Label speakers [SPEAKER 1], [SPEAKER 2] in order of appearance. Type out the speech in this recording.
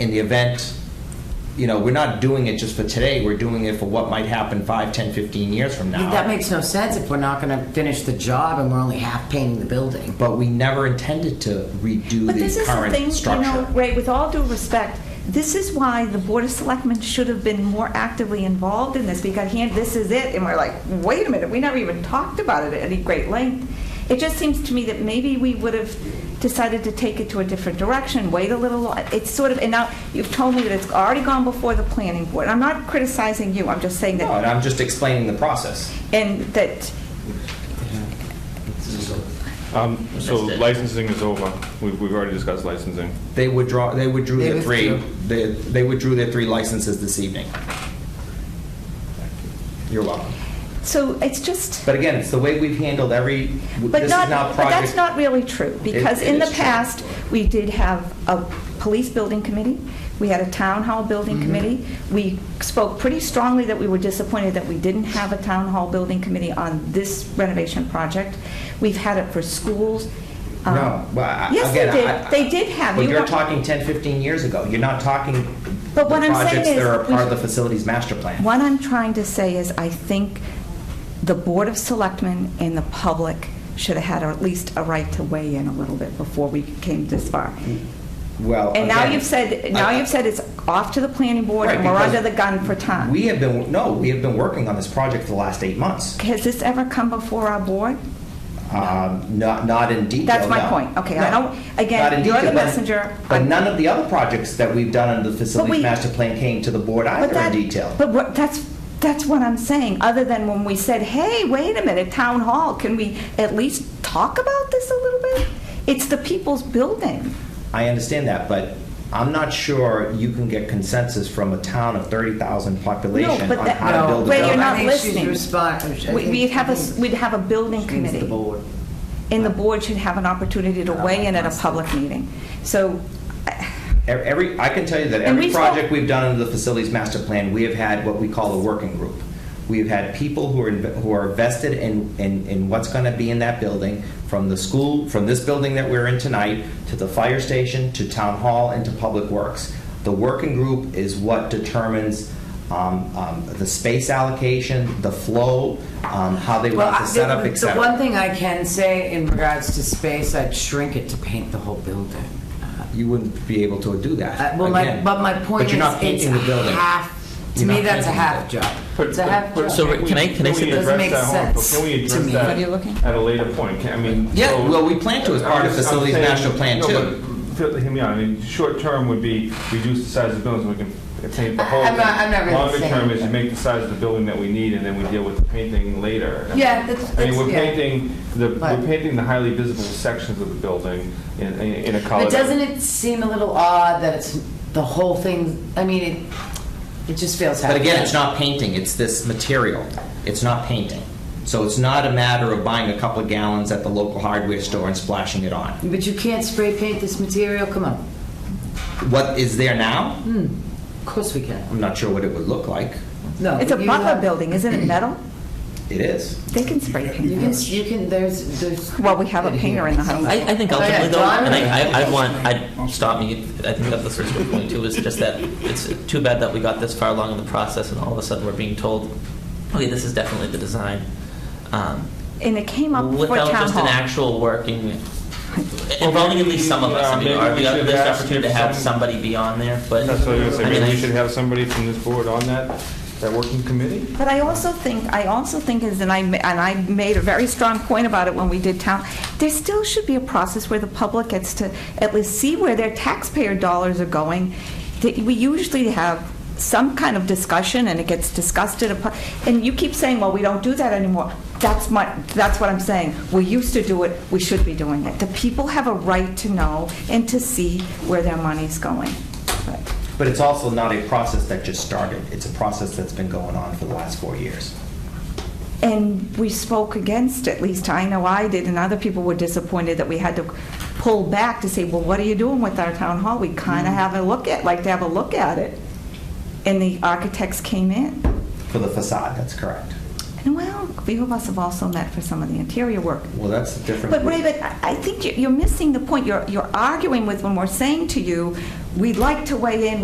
[SPEAKER 1] in the event, you know, we're not doing it just for today, we're doing it for what might happen five, ten, fifteen years from now.
[SPEAKER 2] That makes no sense if we're not going to finish the job and we're only half painting the building.
[SPEAKER 1] But we never intended to redo
[SPEAKER 3] But this
[SPEAKER 1] the
[SPEAKER 3] is the
[SPEAKER 1] current
[SPEAKER 3] thing, you know,
[SPEAKER 1] structure.
[SPEAKER 3] Ray, with all due respect, this is why the Board of Selectmen should have been more actively involved in this, because here, this is it, and we're like, wait a minute, we never even talked about it at any great length. It just seems to me that maybe we would have decided to take it to a different direction, wait a little, lo- it's sort of, and now, you've told me that it's already gone before the planning board. I'm not criticizing you, I'm just saying
[SPEAKER 1] No,
[SPEAKER 3] that,
[SPEAKER 1] and I'm just explaining the process.
[SPEAKER 3] and that,
[SPEAKER 4] Um, So
[SPEAKER 1] That's it.
[SPEAKER 4] licensing is over. We've we've already discussed licensing.
[SPEAKER 1] They withdraw, they withdrew
[SPEAKER 2] They
[SPEAKER 1] their three,
[SPEAKER 2] withdrew.
[SPEAKER 1] they they withdrew their three licenses this evening. You're welcome.
[SPEAKER 3] so it's just.
[SPEAKER 1] But again, it's the way we've handled every, this
[SPEAKER 3] But
[SPEAKER 1] is
[SPEAKER 3] not,
[SPEAKER 1] not
[SPEAKER 3] but that's
[SPEAKER 1] project.
[SPEAKER 3] not really true, because
[SPEAKER 1] it
[SPEAKER 3] in the
[SPEAKER 1] is true.
[SPEAKER 3] past, we did have a police building committee, we had a town hall
[SPEAKER 1] Mm-hmm.
[SPEAKER 3] building committee, we spoke pretty strongly that we were disappointed that we didn't have a town hall building committee on this renovation project. We've had it for schools. um,
[SPEAKER 1] No, well, I-
[SPEAKER 3] Yes,
[SPEAKER 1] again, I-
[SPEAKER 3] they did, they did have.
[SPEAKER 1] But
[SPEAKER 3] You
[SPEAKER 1] you're
[SPEAKER 3] want-
[SPEAKER 1] talking 10, 15 years ago. You're not talking the
[SPEAKER 3] But what I'm saying
[SPEAKER 1] projects that
[SPEAKER 3] is
[SPEAKER 1] are a
[SPEAKER 3] we
[SPEAKER 1] part of the
[SPEAKER 3] should-
[SPEAKER 1] facilities master plan.
[SPEAKER 3] What I'm trying to say is, I think the Board of Selectmen and the public should have had at least a right to weigh in a little bit before we came this far.
[SPEAKER 1] Well,
[SPEAKER 3] And now
[SPEAKER 1] again,
[SPEAKER 3] you've said, now
[SPEAKER 1] I-
[SPEAKER 3] you've said it's off to the planning board
[SPEAKER 1] Right,
[SPEAKER 3] and we're
[SPEAKER 1] because
[SPEAKER 3] under the gun for time.
[SPEAKER 1] We have been, no, we have been working on this project for the last eight months.
[SPEAKER 3] Has this ever come before our board?
[SPEAKER 1] Um, Not, not in detail,
[SPEAKER 3] That's my
[SPEAKER 1] no.
[SPEAKER 3] point. Okay, I
[SPEAKER 1] No.
[SPEAKER 3] don't- again,
[SPEAKER 1] Not in
[SPEAKER 3] you're the
[SPEAKER 1] detail, but-
[SPEAKER 3] messenger.
[SPEAKER 1] But
[SPEAKER 3] I'm-
[SPEAKER 1] none of the other projects that we've done under the
[SPEAKER 3] we-
[SPEAKER 1] facilities master plan came to the board
[SPEAKER 3] But
[SPEAKER 1] either in
[SPEAKER 3] that-
[SPEAKER 1] detail.
[SPEAKER 3] But what, that's, that's what I'm saying, other than when we said, hey, wait a minute, town hall, can we at least talk about this a little bit? It's the people's building.
[SPEAKER 1] I understand that, but I'm not sure you can get consensus from a town of 30,000 population
[SPEAKER 3] but
[SPEAKER 1] on
[SPEAKER 3] that-
[SPEAKER 1] how to
[SPEAKER 3] No,
[SPEAKER 1] build a
[SPEAKER 3] Ray, you're
[SPEAKER 1] building.
[SPEAKER 3] not
[SPEAKER 2] I think she's
[SPEAKER 3] listening.
[SPEAKER 2] respon- I think-
[SPEAKER 3] We- We'd have a, s- we'd have a building
[SPEAKER 2] She means the
[SPEAKER 3] committee.
[SPEAKER 2] board.
[SPEAKER 3] And the board should have an opportunity to weigh in at a public meeting. So,
[SPEAKER 1] Every, I can tell you that
[SPEAKER 3] And
[SPEAKER 1] every
[SPEAKER 3] we saw-
[SPEAKER 1] project we've done under the facilities master plan, we have had what we call a working group. We've had people who are, inv- who are vested in, in, in what's going to be in that building, from the school, from this building that we're in tonight, to the fire station, to town hall, and to public works. The working group is what determines um, um, the space allocation, the flow, um, how they
[SPEAKER 2] Well,
[SPEAKER 1] want
[SPEAKER 2] I-
[SPEAKER 1] to set up,
[SPEAKER 2] the-
[SPEAKER 1] et
[SPEAKER 2] The one
[SPEAKER 1] cetera.
[SPEAKER 2] thing I can say in regards to space, I'd shrink it to paint the whole building.
[SPEAKER 1] You wouldn't be able to do
[SPEAKER 2] Uh,
[SPEAKER 1] that.
[SPEAKER 2] Well, my,
[SPEAKER 1] Again,
[SPEAKER 2] but my point
[SPEAKER 1] you're
[SPEAKER 2] is,
[SPEAKER 1] not
[SPEAKER 2] it's
[SPEAKER 1] painting the building.
[SPEAKER 2] half, to
[SPEAKER 1] You're
[SPEAKER 2] me,
[SPEAKER 1] not
[SPEAKER 2] that's a
[SPEAKER 1] painting
[SPEAKER 2] half
[SPEAKER 1] the
[SPEAKER 2] job.
[SPEAKER 4] But-
[SPEAKER 2] It's a half
[SPEAKER 4] but-
[SPEAKER 2] job.
[SPEAKER 5] So, Rick, can I- can I say
[SPEAKER 4] we
[SPEAKER 5] this?
[SPEAKER 2] Doesn't make
[SPEAKER 4] address that? Hold on,
[SPEAKER 2] sense
[SPEAKER 4] Can we
[SPEAKER 2] to
[SPEAKER 4] address
[SPEAKER 2] me.
[SPEAKER 4] that
[SPEAKER 2] What are you
[SPEAKER 3] looking
[SPEAKER 4] at a later point? Can- I mean.
[SPEAKER 1] Yeah,
[SPEAKER 4] so-
[SPEAKER 1] well, we plan to as part of
[SPEAKER 4] I'm just- I'm
[SPEAKER 1] facilities
[SPEAKER 4] saying-
[SPEAKER 1] master plan,
[SPEAKER 4] no,
[SPEAKER 1] too.
[SPEAKER 4] but f- Hear me out. I mean, short term would be reduce the size of the building so we can paint the whole.
[SPEAKER 2] I'm not-
[SPEAKER 4] thing.
[SPEAKER 2] I'm not really
[SPEAKER 4] Longer
[SPEAKER 2] saying-
[SPEAKER 4] term is you make the size of the building that we need and then we deal with the painting later.
[SPEAKER 2] Yeah, that's-
[SPEAKER 4] I mean,
[SPEAKER 2] that's-
[SPEAKER 4] we're
[SPEAKER 2] yeah.
[SPEAKER 4] painting, the
[SPEAKER 2] But-
[SPEAKER 4] we're painting the highly visible sections of the building in, in in a color.
[SPEAKER 2] But
[SPEAKER 4] that-
[SPEAKER 2] doesn't it seem a little odd that it's the whole thing, I mean, it, it just feels half.
[SPEAKER 1] But again, it's
[SPEAKER 2] done.
[SPEAKER 1] not painting, it's this material. It's not painting. So it's not a matter of buying a couple of gallons at the local hardware store and splashing it on.
[SPEAKER 2] But you can't spray paint this material, come on.
[SPEAKER 1] What is there now?
[SPEAKER 2] Of course we can.
[SPEAKER 1] I'm not sure what it would look like.
[SPEAKER 2] No.
[SPEAKER 3] it's a
[SPEAKER 2] you
[SPEAKER 3] Butler
[SPEAKER 2] have-
[SPEAKER 3] building, isn't it metal?
[SPEAKER 1] It is.
[SPEAKER 3] They can spray paint
[SPEAKER 2] You can,
[SPEAKER 3] that.
[SPEAKER 2] you can, there's, there's.
[SPEAKER 3] Well, we have a painter in the house.
[SPEAKER 5] I, I think
[SPEAKER 2] Oh, yeah,
[SPEAKER 5] ultimately though,
[SPEAKER 2] John?
[SPEAKER 5] and I, I, I want, I'd stop me, I think that the first point too is just that it's too bad that we got this far along in the process and all of a sudden we're being told, okay, this is definitely the design. Um,
[SPEAKER 3] And it came up for
[SPEAKER 5] Without
[SPEAKER 3] town
[SPEAKER 5] just an
[SPEAKER 3] hall.
[SPEAKER 5] actual working, involving at least some of us, I mean,
[SPEAKER 4] Yeah, maybe
[SPEAKER 5] or the
[SPEAKER 4] we should
[SPEAKER 5] other, there's
[SPEAKER 4] ask
[SPEAKER 5] opportunity to
[SPEAKER 4] if
[SPEAKER 5] have
[SPEAKER 4] some-
[SPEAKER 5] somebody be on there, but.
[SPEAKER 4] That's what I was
[SPEAKER 5] I
[SPEAKER 4] gonna
[SPEAKER 5] mean,
[SPEAKER 4] say. Maybe
[SPEAKER 5] I-
[SPEAKER 4] we should have somebody from this board on that, that working committee?
[SPEAKER 3] But I also think, I also think is, and I, ma- and I made a very strong point about it when we did town, there still should be a process where the public gets to at least see where their taxpayer dollars are going. That We usually have some kind of discussion, and it gets discussed at a, pu- and you keep saying, well, we don't do that anymore. That's my, that's what I'm saying. We used to do it, we should be doing it. The people have a right to know and to see where their money's going. But-
[SPEAKER 1] But it's also not a process that just started. It's a process that's been going on for the last four years.
[SPEAKER 3] And we spoke against, at least I know I did, and other people were disappointed that we had to pull back to say, well, what are you doing with our town hall? We kind of have a look at, like to have a look at it. And the architects came in.
[SPEAKER 1] For the facade, that's correct.
[SPEAKER 3] And well, a few of us have also met for some of the interior work.
[SPEAKER 1] Well, that's a different.
[SPEAKER 3] But Ray, but I I think you- you're missing the point. You're, you're arguing with when we're saying to you, we'd like to weigh in,